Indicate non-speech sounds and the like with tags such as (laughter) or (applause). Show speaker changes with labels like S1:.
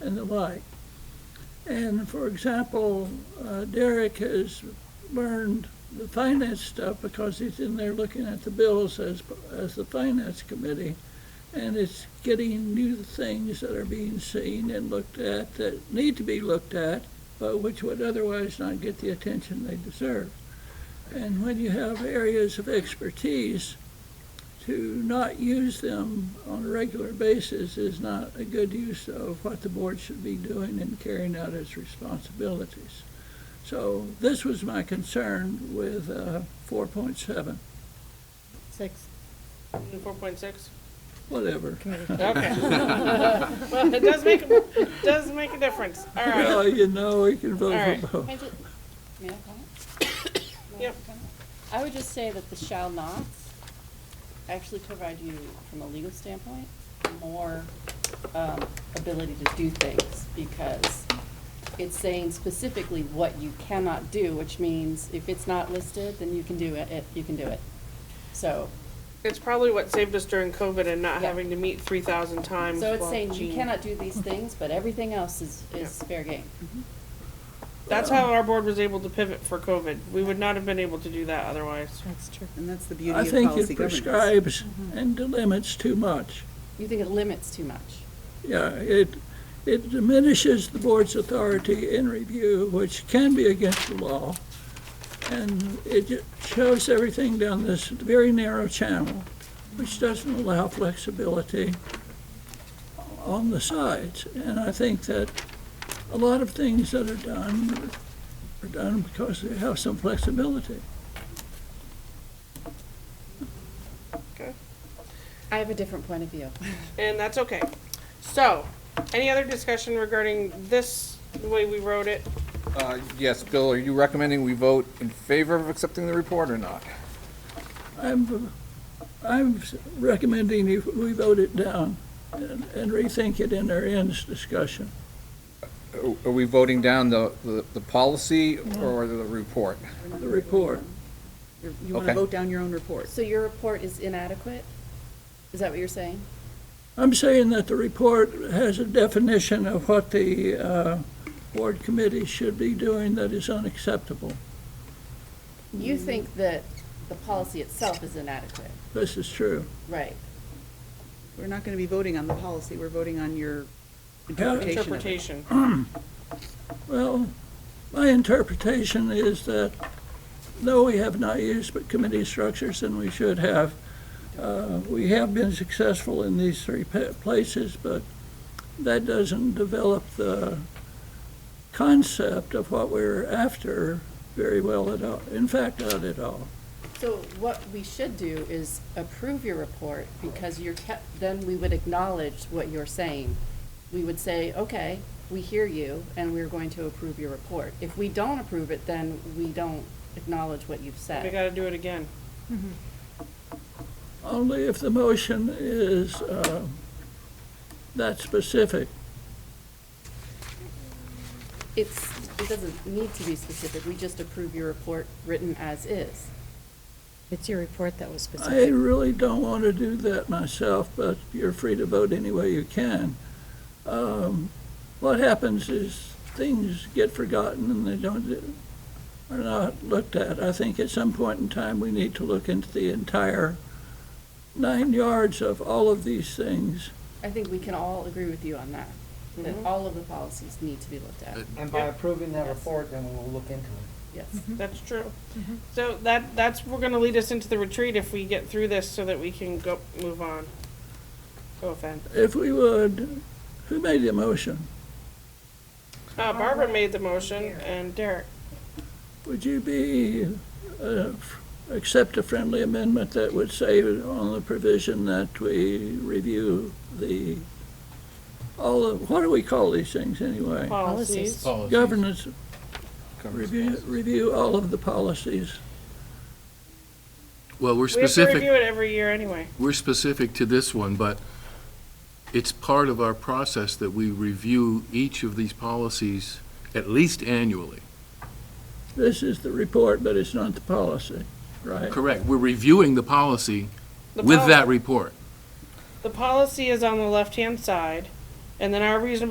S1: and the like. And for example, uh, Derek has learned the finance stuff because he's in there looking at the bills as, as the finance committee. And it's getting new things that are being seen and looked at that need to be looked at, but which would otherwise not get the attention they deserve. And when you have areas of expertise, to not use them on a regular basis is not a good use of what the board should be doing in carrying out its responsibilities. So this was my concern with uh, 4.7,
S2: Six.
S3: Four point six?
S1: whatever.
S3: Okay. (laughs) Well, it does make, it does make a difference. All right.
S1: Well, you know, we can
S3: All
S1: vote
S3: right.
S1: for both.
S4: Can I ju- may I comment? May I
S3: Yep.
S4: comment? I would just say that the shall nots actually provide you, from a legal standpoint, more um, ability to do things because it's saying specifically what you cannot do, which means if it's not listed, then you can do it, it- you can do it. So,
S3: It's probably what saved us during COVID and not
S4: Yeah.
S3: having to meet three thousand times.
S4: so it's
S3: while
S4: saying you
S3: Jean-
S4: cannot do these things, but everything else is, is
S3: Yeah.
S4: fair game.
S3: That's how our board was able to pivot for COVID. We would not have been able to do that otherwise.
S2: That's true.
S5: And that's the beauty
S1: I
S5: of
S1: think it
S5: policy governance.
S1: prescribes
S3: Mm-hmm.
S1: and delimits too much.
S4: You think it limits too much.
S1: Yeah, it, it diminishes the board's authority in review, which can be against the law. And it ju- shoves everything down this very narrow channel, which doesn't allow flexibility on the sides. And I think that a lot of things that are done are done because they have some flexibility.
S3: Okay.
S4: I have a different point of view.
S3: And that's okay. So, any other discussion regarding this, the way we wrote it?
S6: Uh, Yes, Bill, are you recommending we vote in favor of accepting the report or not?
S1: I'm, I'm recommending if we vote it down and and rethink it in our ends discussion.
S6: Are- Are we voting down the, the- the policy or the report?
S1: the report.
S5: You're- You want to
S6: Okay.
S5: vote down your own report.
S4: So your report is inadequate? Is that what you're saying?
S1: I'm saying that the report has a definition of what the uh, board committee should be doing that is unacceptable.
S4: You think that the policy itself is inadequate,
S1: This is true.
S4: right?
S5: We're not going to be voting on the policy, we're voting on your interpretation of it.
S3: Interpretation.
S1: Well, my interpretation is that though we have not used but committee structures and we should have, uh, we have been successful in these three pa- places, but that doesn't develop the concept of what we're after very well at all. In fact, not at all.
S4: So what we should do is approve your report because you're kept, then we would acknowledge what you're saying. We would say, okay, we hear you and we're going to approve your report. If we don't approve it, then we don't acknowledge what you've
S3: We
S4: said.
S3: gotta do it again.
S1: Only if the motion is uh, that specific.
S4: It's, it doesn't need to be specific, we just approve your report written as is.
S2: It's your report that was
S1: I
S2: specific.
S1: really don't want to do that myself, but you're free to vote any way you can. Um, What happens is things get forgotten and they don't, are not looked at. I think at some point in time, we need to look into the entire nine yards of all of these things.
S4: I think we can all agree with you on that, that all of the policies need to be looked at,
S7: And by approving that
S4: Yes.
S7: report, then we'll look into it.
S4: yes.
S3: That's true. So that, that's, we're gonna lead us into the retreat if we get through this so that we can go, move on. Go offend.
S1: If we would, who made the motion?
S3: Uh, Barbara made the motion and Derek.
S1: Would you be, uh, f- accept a friendly amendment that would say on the provision that we review the, all of, what do we call these things anyway?
S3: Policies.
S1: Governance,
S6: Governance
S1: review,
S6: policy.
S1: review all of the policies.
S8: Well, we're
S3: We have to
S8: specific,
S3: review it every year anyway.
S8: we're specific to this one, but it's part of our process that we review each of these policies at least annually.
S1: This is the report, but it's not the policy, right?
S8: Correct, we're reviewing the policy
S3: The
S8: with
S3: poli-
S8: that report.
S3: The policy is on the left-hand side and then our reasonable